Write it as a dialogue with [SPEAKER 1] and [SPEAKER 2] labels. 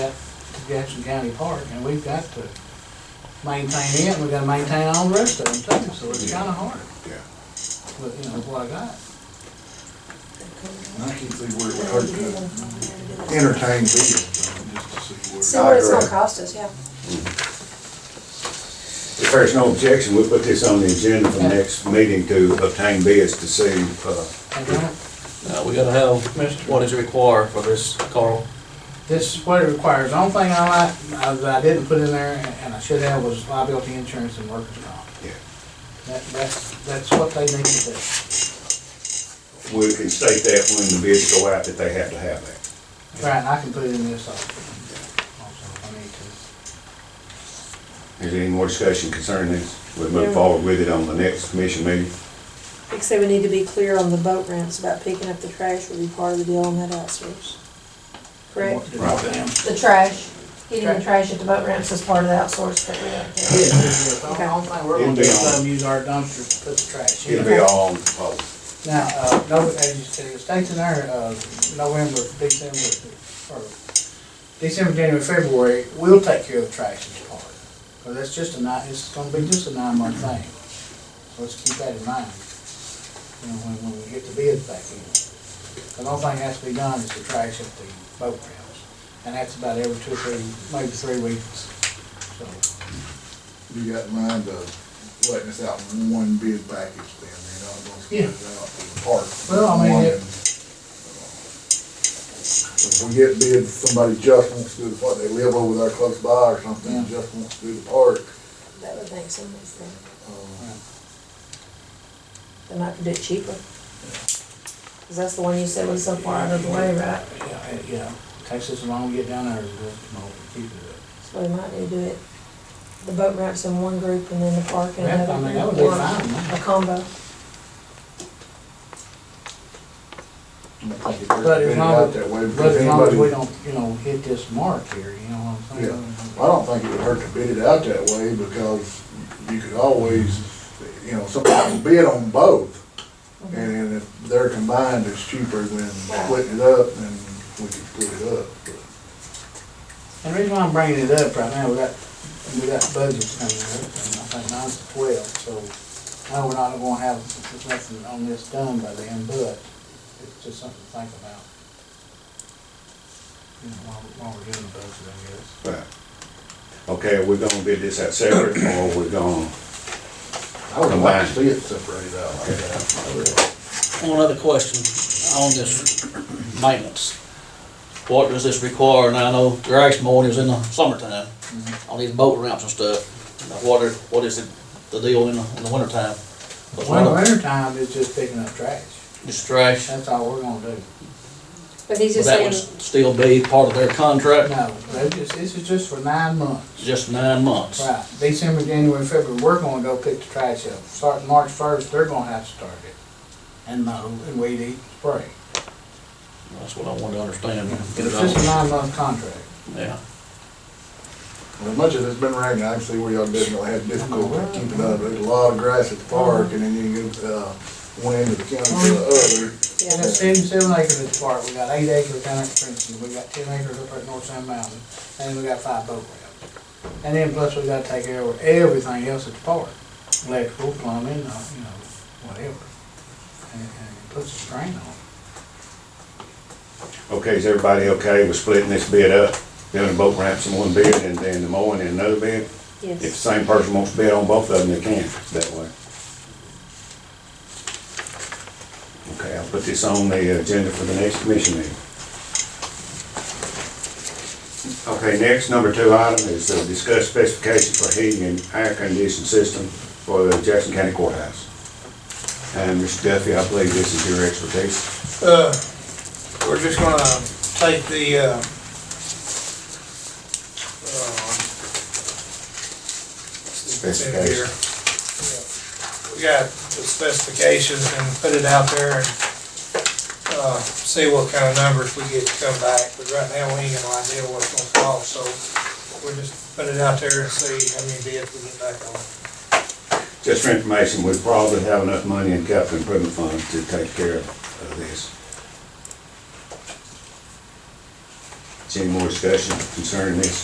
[SPEAKER 1] is Jackson County Park, and we've got to maintain it, and we've gotta maintain all the rest of them too, so it's kinda hard.
[SPEAKER 2] Yeah.
[SPEAKER 1] But, you know, what I got.
[SPEAKER 2] I can see where it would hurt to entertain bids, on it, just to see
[SPEAKER 3] See
[SPEAKER 2] where.
[SPEAKER 3] what it's gonna cost us, yeah.
[SPEAKER 4] If there's no objection, we'll put this on the agenda for next meeting to obtain bids to see, uh,
[SPEAKER 1] I don't-
[SPEAKER 5] Uh, we gotta have what is required for this, Carl.
[SPEAKER 1] This is what it requires. The only thing I like, uh, that I didn't put in there, and- and I should have, was liability insurance and workers' comp.
[SPEAKER 4] Yeah.
[SPEAKER 1] That, that's, that's what they need to do.
[SPEAKER 4] we can state that when the bids go out that they have to have that.
[SPEAKER 1] Right, and I can put it in this also. Also, if I need to.
[SPEAKER 4] Is there any more discussion concerning this? We'll move forward with it on the next commission meeting.
[SPEAKER 3] Except we need to be clear on the boat ramps about picking up the trash would be part of the deal on that outsource. Correct?
[SPEAKER 1] What to do
[SPEAKER 4] Right.
[SPEAKER 1] with them.
[SPEAKER 3] The trash, getting the trash at the boat ramps is part of the outsource that we
[SPEAKER 1] Yeah,
[SPEAKER 3] have.
[SPEAKER 1] yeah, yeah. The only- only thing we're gonna do is let them use our dumpster to put the trash in.
[SPEAKER 4] It'll be all on the proposal.
[SPEAKER 1] Now, uh, no, as you said, it states in there, uh, November, December, or December, January, February, we'll take care of the trash in the park. But that's just a nine, it's gonna be just a nine month thing. So let's keep that in mind. You know, when, when we get the bids back in. The only thing that has to be done is the trash at the boat ramps. And that's about every two or three, maybe three weeks, so.
[SPEAKER 2] You got in mind of letting us out in one bid package then, you know, don't split it out to the park.
[SPEAKER 1] Well, I mean, it-
[SPEAKER 2] If we get bids, somebody just wants to do what, they live over there close by or something,
[SPEAKER 1] Yeah.
[SPEAKER 2] just wants to do the park,
[SPEAKER 3] That would make some sense.
[SPEAKER 2] um,
[SPEAKER 3] They might do it cheaper. Cause that's the one you said was so far out of the way, right?
[SPEAKER 1] Yeah, yeah, takes us long to get down there, but keep it up.
[SPEAKER 3] So we might need to do it, the boat ramps in one group and then the park in
[SPEAKER 1] That,
[SPEAKER 3] another.
[SPEAKER 1] I mean, that would
[SPEAKER 3] group,
[SPEAKER 1] be
[SPEAKER 3] or
[SPEAKER 1] fine.
[SPEAKER 3] A combo.
[SPEAKER 2] I think if there's
[SPEAKER 1] But as
[SPEAKER 2] bid
[SPEAKER 1] long
[SPEAKER 2] out
[SPEAKER 1] as-
[SPEAKER 2] that way,
[SPEAKER 1] But
[SPEAKER 2] because
[SPEAKER 1] as long as we
[SPEAKER 2] anybody-
[SPEAKER 1] don't, you know, hit this mark here, you know what I'm saying?
[SPEAKER 2] I don't think it would hurt to bid it out that way because you could always, you know, somebody can bid on both. And if they're combined, it's cheaper than splitting it up and we could split it up. but-
[SPEAKER 1] And the reason why I'm bringing it up right now, we got, we got budgets coming up, and I think mine's the twelve, so I know we're not gonna have nothing on this done by then, but it's just something to think about. You know, while, while we're doing the budget, I guess.
[SPEAKER 4] Right. Okay, are we gonna bid this out separate or we're gonna,
[SPEAKER 2] I would like to see it separated out like that.
[SPEAKER 5] One other question on this maintenance. What does this require? And I know grass mowing is in the summertime, on these boat ramps and stuff. Now, What are, what is it, the deal in the, in the wintertime? But one
[SPEAKER 1] Well,
[SPEAKER 5] of
[SPEAKER 1] winter time is just picking up trash,
[SPEAKER 5] the- Just trash,
[SPEAKER 1] that's all we're gonna do.
[SPEAKER 3] But he's
[SPEAKER 5] Would
[SPEAKER 3] just
[SPEAKER 5] that would
[SPEAKER 3] saying,
[SPEAKER 5] still be part of their contract,
[SPEAKER 1] No, they just, this is just for nine months.
[SPEAKER 5] just nine months.
[SPEAKER 1] Right, December, January, February, we're gonna go pick the trash up. Starting March first, they're gonna have to start it. And mow and weed eat, spray.
[SPEAKER 5] That's what I wanted to understand.
[SPEAKER 1] It's just a nine-month contract.
[SPEAKER 5] Yeah.
[SPEAKER 2] As much as it's been raining, I can see where y'all definitely had difficulty keeping up. There's a lot of grass at the park and then you get, uh, one end of the county to the other.
[SPEAKER 3] yeah.
[SPEAKER 1] And it's seven, seven acres at the park, we got eight acres down at Princeton, we got ten acres up at North Sand Mountain, and we got five boat ramps. And then plus we gotta take care of everything else at the park, electrical, plumbing, uh, you know, whatever. And, and it puts a strain on it.
[SPEAKER 4] okay, is everybody okay with splitting this bid up? Doing the boat ramps in one bid and then the mowing in another bid? If the
[SPEAKER 3] Yes.
[SPEAKER 4] same person wants to bid on both of them, they can, that way. Okay, I'll put this on the agenda for the next commission meeting. Okay, next, number two item is uh, discuss specifications for heating and air conditioning system for the Jackson County Courthouse. And Mr. Duffy, I believe this is your expertise.
[SPEAKER 6] Uh, we're just gonna take the, uh, um, it's in here. We got the specifications and put it out there and, uh, see what kind of numbers we get to come back, but right now we ain't got no idea what it's gonna cost, so we'll just put it out there and see how many bids we get back on. it.
[SPEAKER 4] Just for information, we probably have enough money in capital improvement fund to take care of uh, this. Is Any more discussion concerning this?